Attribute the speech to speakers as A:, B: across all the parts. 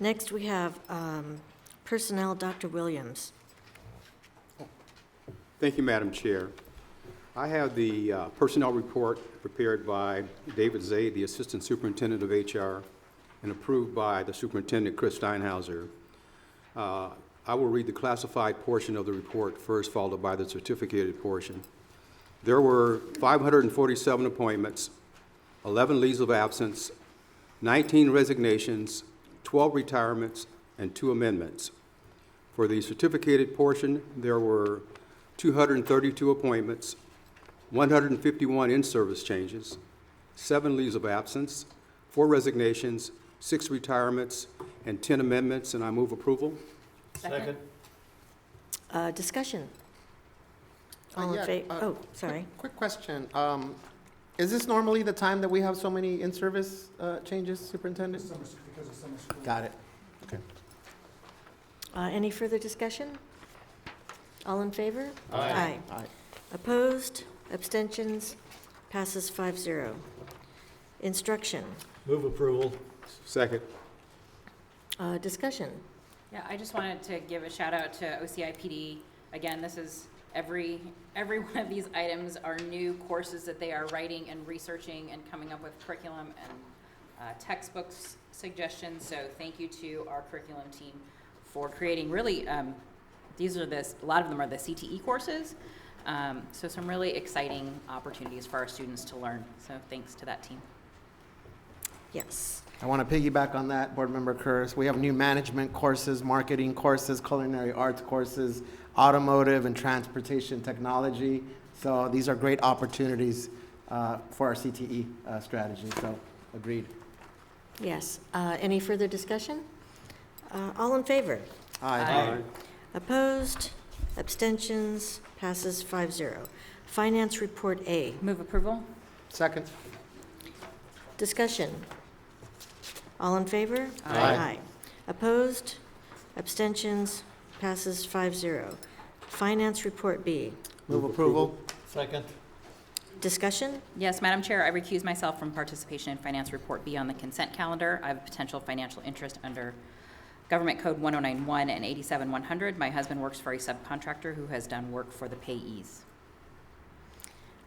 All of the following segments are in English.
A: Next, we have um, Personnel, Dr. Williams.
B: Thank you, Madam Chair. I have the uh, personnel report prepared by David Zay, the Assistant Superintendent of HR, and approved by the Superintendent, Chris Steinhauser. Uh, I will read the classified portion of the report first, followed by the certificated portion. There were 547 appointments, 11 leaves of absence, 19 resignations, 12 retirements, and two amendments. For the certificated portion, there were 232 appointments, 151 in-service changes, seven leaves of absence, four resignations, six retirements, and 10 amendments, and I move approval.
C: Second.
A: Uh, Discussion?
D: Uh,
A: All in
D: yeah,
A: favor?
D: uh,
A: Oh, sorry.
D: Quick question. Um, Is this normally the time that we have so many in-service uh, changes, Superintendent? Got it.
A: Uh, Any further discussion? All in favor? Aye.
D: All right.
A: Opposed? Abstentions? Passes 5-0. Instruction?
C: Move approval.
B: Second.
A: Uh, Discussion?
E: Yeah, I just wanted to give a shout out to OCIPD. Again, this is every, every one of these items are new courses that they are writing and researching and coming up with curriculum and uh, textbooks suggestions. So thank you to our curriculum team for creating really, um, these are this, a lot of them are the CTE courses. Um, So some really exciting opportunities for our students to learn. So thanks to that team.
A: Yes.
D: I want to piggyback on that, Board Member Curtis. We have new management courses, marketing courses, culinary arts courses, automotive and transportation technology. So these are great opportunities uh, for our CTE uh, strategy, so agreed.
A: Yes. Uh, Any further discussion? Uh, All in favor?
E: Aye.
A: Opposed? Abstentions? Passes 5-0. Finance Report A.
E: Move approval?
D: Second.
A: Discussion. All in favor?
D: Aye.
A: Opposed? Abstentions? Passes 5-0. Finance Report B.
D: Move approval.
C: Second.
A: Discussion?
E: Yes, Madam Chair, I recuse myself from participation in Finance Report B on the consent calendar. I have potential financial interest under Government Code 1091 and 87100. My husband works for a subcontractor who has done work for the payees.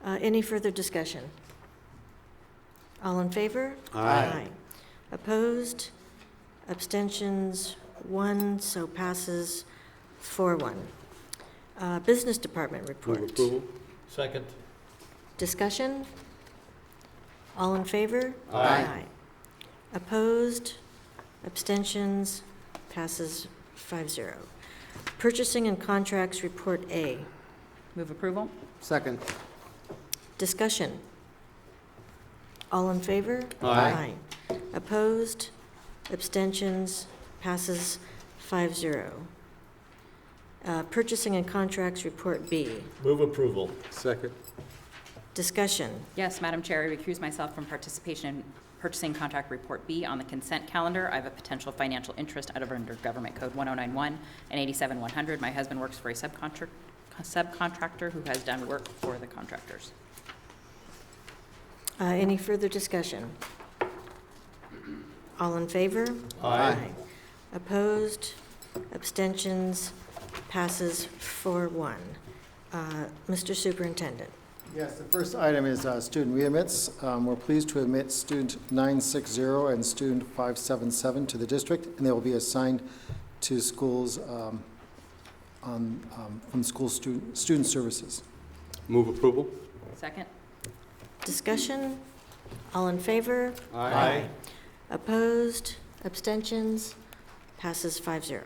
A: Uh, Any further discussion? All in favor?
B: Aye.
A: Opposed? Abstentions? One, so passes 4-1. Uh, Business Department Report.
B: Move approval.
C: Second.
A: Discussion? All in favor?
D: Aye.
A: Opposed? Abstentions? Passes 5-0. Purchasing and Contracts Report A.
E: Move approval?
D: Second.
A: Discussion? All in favor?
D: Aye.
A: Opposed? Abstentions? Passes 5-0. Uh, Purchasing and Contracts Report B.
C: Move approval.
B: Second.
A: Discussion?
E: Yes, Madam Chair, I recuse myself from participation in Purchasing Contract Report B on the consent calendar. I have a potential financial interest out of under Government Code 1091 and 87100. My husband works for a subcontract- subcontractor who has done work for the contractors.
A: Uh, Any further discussion? All in favor? Aye. Opposed? Abstentions? Passes 4-1. Uh, Mr. Superintendent?
F: Yes, the first item is uh, student readmits. Um, We're pleased to admit student 960 and student 577 to the district, and they will be assigned to schools um, on, um, from school student, student services.
B: Move approval.
E: Second?
A: Discussion? All in favor? Opposed? Abstentions? Passes 5-0.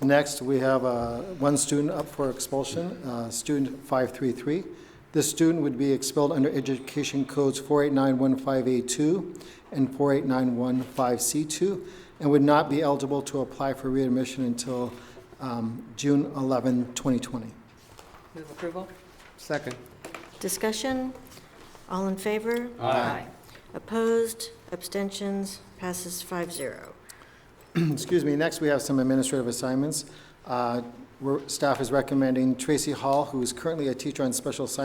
F: Next, we have uh, one student up for expulsion, uh, student 533. This student would be expelled under Education Codes 48915A2 and 48915C2 and would not be eligible to apply for readmission until um, June 11, 2020.
E: Move approval?
D: Second.
A: Discussion? All in favor?
E: Aye.
A: Opposed? Abstentions? Passes 5-0.
F: Excuse me, next we have some administrative assignments. Uh, we're- Staff is recommending Tracy Hall, who is currently a teacher on special assignment